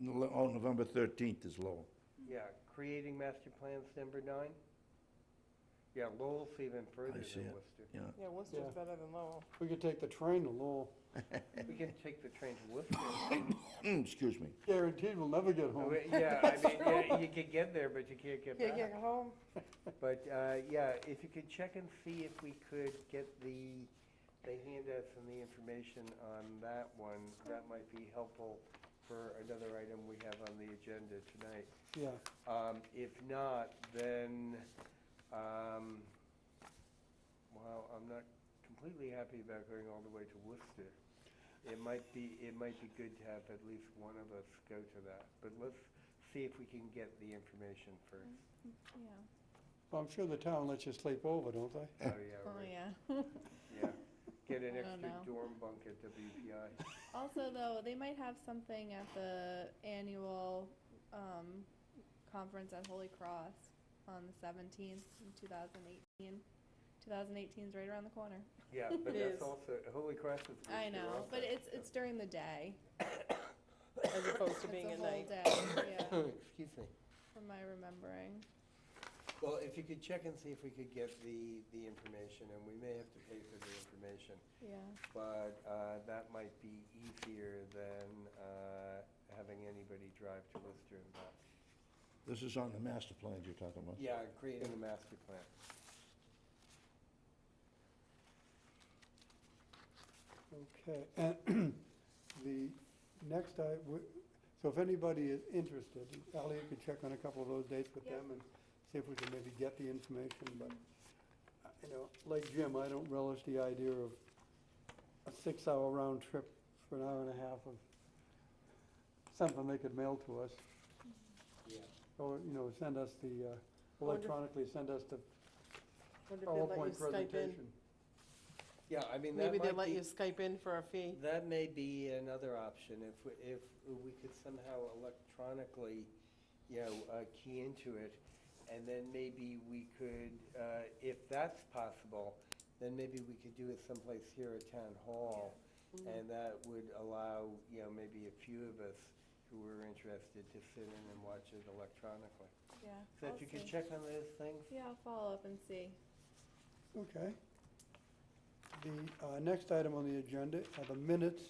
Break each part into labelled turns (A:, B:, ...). A: Nov- oh, November thirteenth is Lowell.
B: Yeah, creating master plans, number nine? Yeah, Lowell's even further
A: see
B: than
A: it.
B: Worcester.
C: Yeah, Worcester's
D: Yeah.
C: better than Lowell.
D: We could take the train to Lowell.
B: We can take the train to Worcester. Oh,
A: Excuse me.
D: Guaranteed we'll never get home.
B: Yeah, I mean, yeah,
C: True.
B: you could get there, but you can't get
C: Can't get
B: back.
C: home.
B: But, uh, yeah, if you could check and see if we could get the, they hand us some the information on that one, that might be helpful for another item we have on the agenda tonight.
D: Yeah,
B: Um, If not, then, um, well, I'm not completely happy about going all the way to Worcester. It might be, it might be good to have at least one of us go to that, but let's see if we can get the information first.
E: Mm-hmm. Yeah.
D: well, I'm sure the town lets you sleep over, don't they?
B: Oh, yeah,
E: Oh,
B: right,
E: yeah.
B: yeah. Get an
E: I don't
B: extra
E: know.
B: dorm bunk at WPI.
E: also, though, they might have something at the annual um, conference at Holy Cross on the 17th in 2018. 2018 is right around the corner.
B: Yeah, but that's
C: It is.
B: also, Holy Cross is. Worcester
E: I know,
B: also,
E: but it's
B: so-
E: it's during the day.
C: As opposed to
E: it's
C: being at
E: a whole
C: night.
E: day. Yeah,
B: Excuse me.
E: from my remembering.
B: Well, if you could check and see if we could get the, the information, and we may have to pay for the information,
E: Yeah.
B: but uh, that might be easier than uh, having anybody drive to Worcester and back.
A: This is on the master plan you're talking about.
B: Yeah, creating a master plan.
D: Okay, and the next, I, w- so if anybody is interested, Elliot could check on a couple of those dates with
E: Yep.
D: them and see if we can maybe get the information, but, uh, you know, like Jim, I don't relish the idea of a six-hour round trip for an hour and a half of something they could mail to us.
B: Yeah.
D: Or, you know, send us the, uh,
C: Wonderful.
D: electronically send us the
C: Wonder if they'd let you
D: PowerPoint
C: Skype in.
D: presentation.
B: Yeah, I mean, that
C: Maybe they'll
B: might
C: let you
B: be,
C: Skype in for a fee.
B: that may be another option, if, we- if we could somehow electronically, you know, uh, key into it, and then maybe we could, uh, if that's possible, then maybe we could do it someplace here at Town Hall, And that would allow, you know, maybe a few of us who were interested to sit in and watch it electronically.
E: Yeah.
B: So
E: I'll
B: if you could
E: see.
B: check on those things?
E: Yeah, I'll follow up and see.
D: Okay. The uh, next item on the agenda are the minutes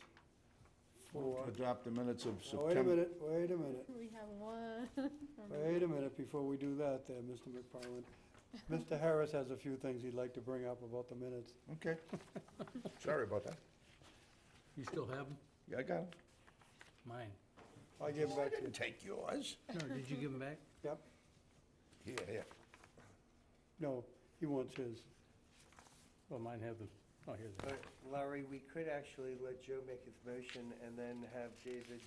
D: for,
A: Adopt the minutes of
D: Now, Oh, wait a
A: September.
D: minute, wait a minute,
E: We have one.
D: wait a minute before we do that there, Mr. McFarland. Mr. Harris has a few things he'd like to bring up about the minutes.
A: Okay. Sorry about that.
F: You still have them?
A: Yeah, I got it.
F: Mine.
D: I'll give it
A: I
D: back to you.
A: didn't take yours.
F: No, did you give them back?
D: Yep,
A: Yeah, yeah.
D: no, he wants his.
F: Well, mine have them. Oh, here they are.
B: But Larry, we could actually let Joe make his motion and then have David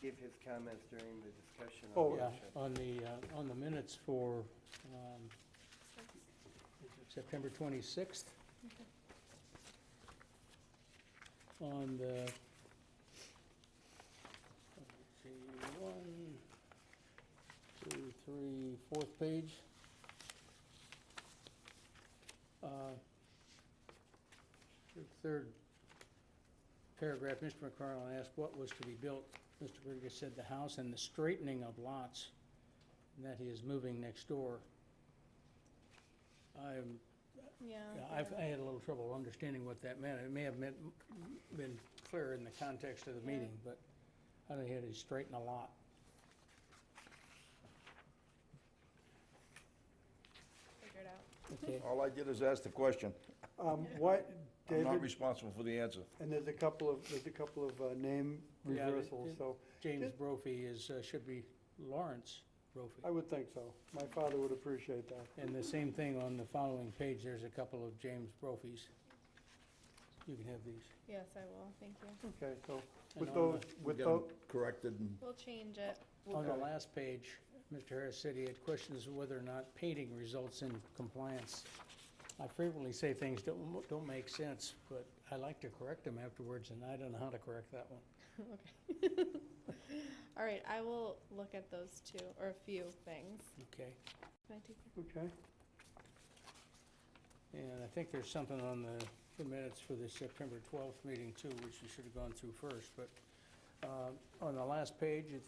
B: give his comments during the discussion
D: Oh,
B: on the
F: Yeah,
B: motion.
F: on the, uh, on the minutes for um, September 26th. On the, let's see, one, two, three, fourth page. Uh, Third paragraph, Mr. McCarroll asked what was to be built. Mr. Burgess said the house and the straightening of lots, and that he is moving next door. I'm,
E: Yeah.
F: I've, I had a little trouble understanding what that meant. It may have meant, been clear in the context of the
E: Yeah.
F: meeting, but how did he straighten a lot?
E: Figure it out.
F: Okay,
A: All I did is ask the question.
D: Um, What,
A: I'm not
D: David,
A: responsible for the answer.
D: and there's a couple of, there's a couple of uh, name
F: Yeah, but
D: reversals,
F: it-
D: so
F: James Brophy is, uh, should be Lawrence Brophy.
D: I would think so. My father would appreciate that.
F: And the same thing on the following page, there's a couple of James Brophies. You can have these.
E: Yes, I will. Thank you.
D: Okay, so
F: And
D: with
F: on the-
D: those,
A: We
D: with
A: got 'em
D: those,
A: Corrected and
E: We'll change it.
F: On the
D: Okay.
F: last page, Mr. Harris said he had questions whether or not painting results in compliance. I frequently say things don't, don't make sense, but I like to correct them afterwards, and I don't know how to correct that one.
E: Okay. All right, I will look at those two, or a few things.
F: Okay?
E: Can I take your-
D: okay.
F: And I think there's something on the, the minutes for the September 12th meeting too, which you should have gone through first, but uh, on the last page, it